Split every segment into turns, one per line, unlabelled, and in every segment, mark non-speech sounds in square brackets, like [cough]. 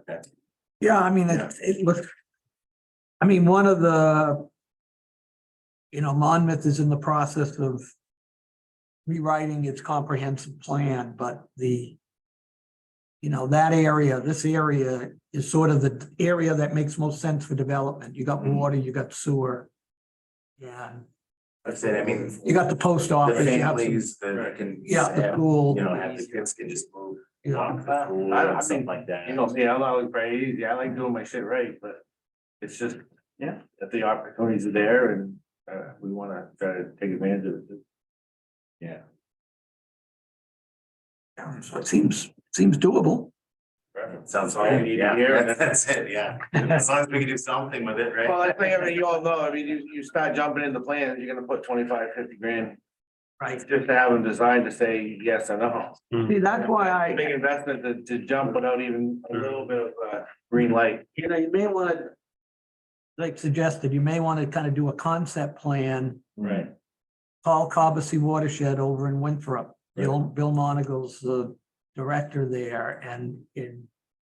Okay.
Yeah, I mean, it, it looked. I mean, one of the. You know, Monmouth is in the process of. Rewriting its comprehensive plan, but the. You know, that area, this area is sort of the area that makes most sense for development. You got water, you got sewer. Yeah,
That's it, I mean.
you got the post
The
office, you have some,
families that can.
yeah, the
have,
pool.
You know, have the kids can just move.
you know.
walk the pool
I- I
and Stuff
mean,
like that.
You know, see, I'm always very easy. I like doing my shit right, but it's just, yeah, if the opportunities are there and uh, we wanna try to take advantage of it.
Yeah.
Yeah, So it seems, seems doable.
Sounds
All we
great,
need to hear,
yeah,
and
that's it, yeah, as long as we can do something with it, right?
Well, I think, I mean, you all know, I mean, you, you start jumping in the plan, you're gonna put 25, 50 grand,
Right.
just to have them designed to say yes or no.
See, that's why I.
Big investment to, to jump without even a little bit of, uh, green light.
you know, you may want to. Like suggested, you may want to kind of do a concept plan,
Right.
call Cobussy Watershed over in Winthrop. Bill, Bill Monagle's the director there and, and,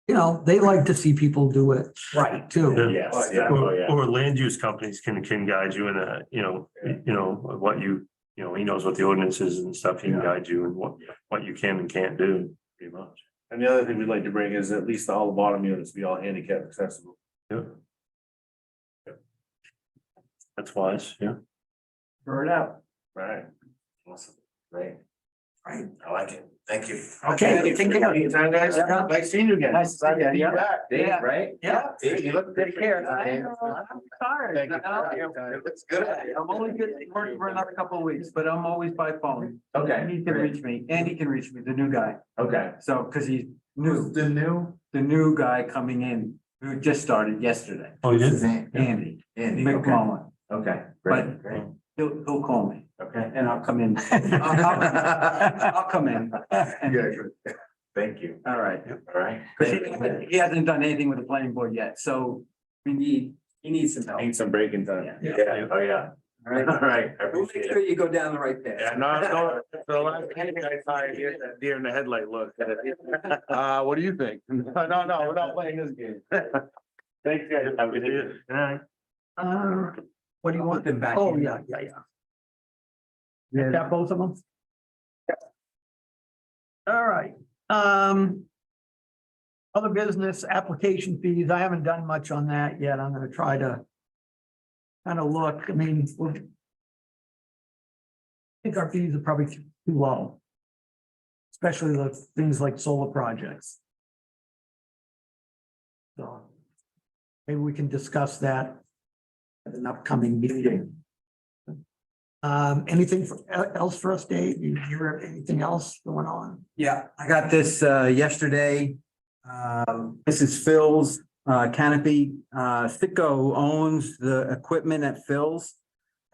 you know, they like to see people do it right too.
Yes, yeah, oh,
Or,
yeah.
or land use companies can, can guide you in a, you know, you know, what you, you know, he knows what the ordinance is and stuff, he can
Yeah.
guide you and what, what you can and can't do, pretty much.
And the other thing we'd like to bring is at least all the bottom units be all handicap accessible.
Yeah. That's wise, yeah.
Burn out. Right.
Awesome. Great.
Right.
I like it, thank you.
Okay,
Thank you.
take care.
Anytime, guys.
Yeah.
Nice seeing you again.
Nice to see you.
Be
Yeah.
back.
Dave,
Yeah.
right?
Yeah.
Dave, you look.
Take care. I know. I'm sorry.
Thank you.
I'm
It looks good.
only good for, for another couple of weeks, but I'm always by phone.
Okay,
He can reach me, Andy can reach me, the new guy.
okay.
So, because he's new,
the new?
the new guy coming in, who just started yesterday,
Oh, you
His name,
Andy
Andy, okay,
McMullen.
okay, great, great,
He'll, he'll call me
okay.
and I'll come in. I'll I'll come in.
Yeah, good. Thank you,
All right.
all right.
Because he, he hasn't done anything with the planning board yet, so we need, he needs some help.
Need some breaking time.
Yeah.
Yeah, oh, yeah, [laughs]
All
all
right.
right, I
We'll make
appreciate
sure
it.
you go down the right path.
Yeah, no, no, for the [laughs] last time I saw it, you had that deer in the headlight look. [laughs] Uh, what do you think? No, no, no, we're not playing this game. [laughs] Thanks, guys.
Have a good day. Yeah.
Uh, what do you want them back? Oh, yeah, yeah, yeah. Got both of them? All right, um. Other business application fees, I haven't done much on that yet. I'm gonna try to. Kind of look, I mean, we'll. I think our fees are probably too low. Especially the things like solar projects. So. Maybe we can discuss that at an upcoming meeting. Um, anything for- else for us, Dave? You hear anything else going on?
Yeah, I got this uh yesterday. Um, this is Phil's uh canopy. Uh, Sitco owns the equipment at Phil's.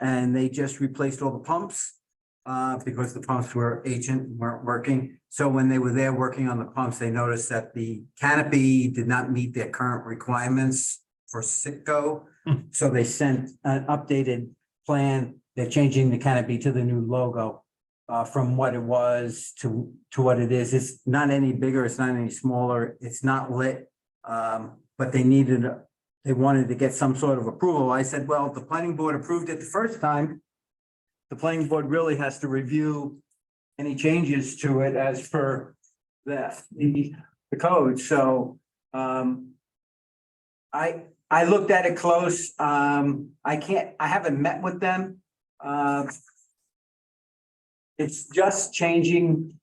And they just replaced all the pumps. Uh, because the pumps were ancient, weren't working. So when they were there working on the pumps, they noticed that the canopy did not meet their current requirements for Sitco.
Hmm.
So they sent an updated plan. They're changing the canopy to the new logo uh, from what it was to, to what it is. It's not any bigger, it's not any smaller, it's not lit. Um, but they needed, they wanted to get some sort of approval. I said, well, if the planning board approved it the first time. The planning board really has to review any changes to it as per the, the, the code, so, um. I, I looked at it close, um, I can't, I haven't met with them, uh, it's just changing.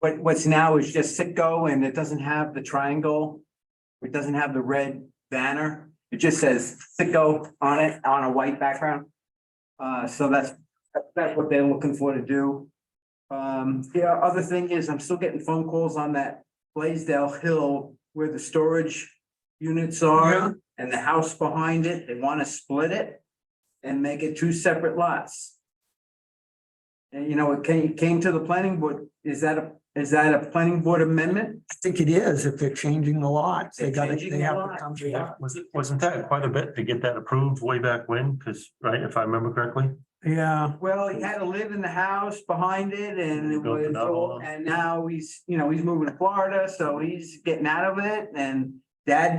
What, what's now is just Sitco and it doesn't have the triangle. It doesn't have the red banner. It just says Sitco on it, on a white background. Uh, so that's, that's what they're looking for to do. Um, the other thing is I'm still getting phone calls on that Blaisdell Hill where the storage units
Yeah.
are and the house behind it. They want to split it and make it two separate lots. And you know, it came, came to the planning board, is that a, is that a planning board amendment?
I think it is, if they're changing the lots, they
They're
gotta,
changing
they
the
have to
lot.
come to
Yeah,
that.
was it, wasn't that quite a bit to get that approved way back when? Because, right, if I remember correctly?
Yeah,
Well, he had to live in the house behind it and it
Built it
was,
up.
all- and now he's, you know, he's moving to Florida, so he's getting out of it and That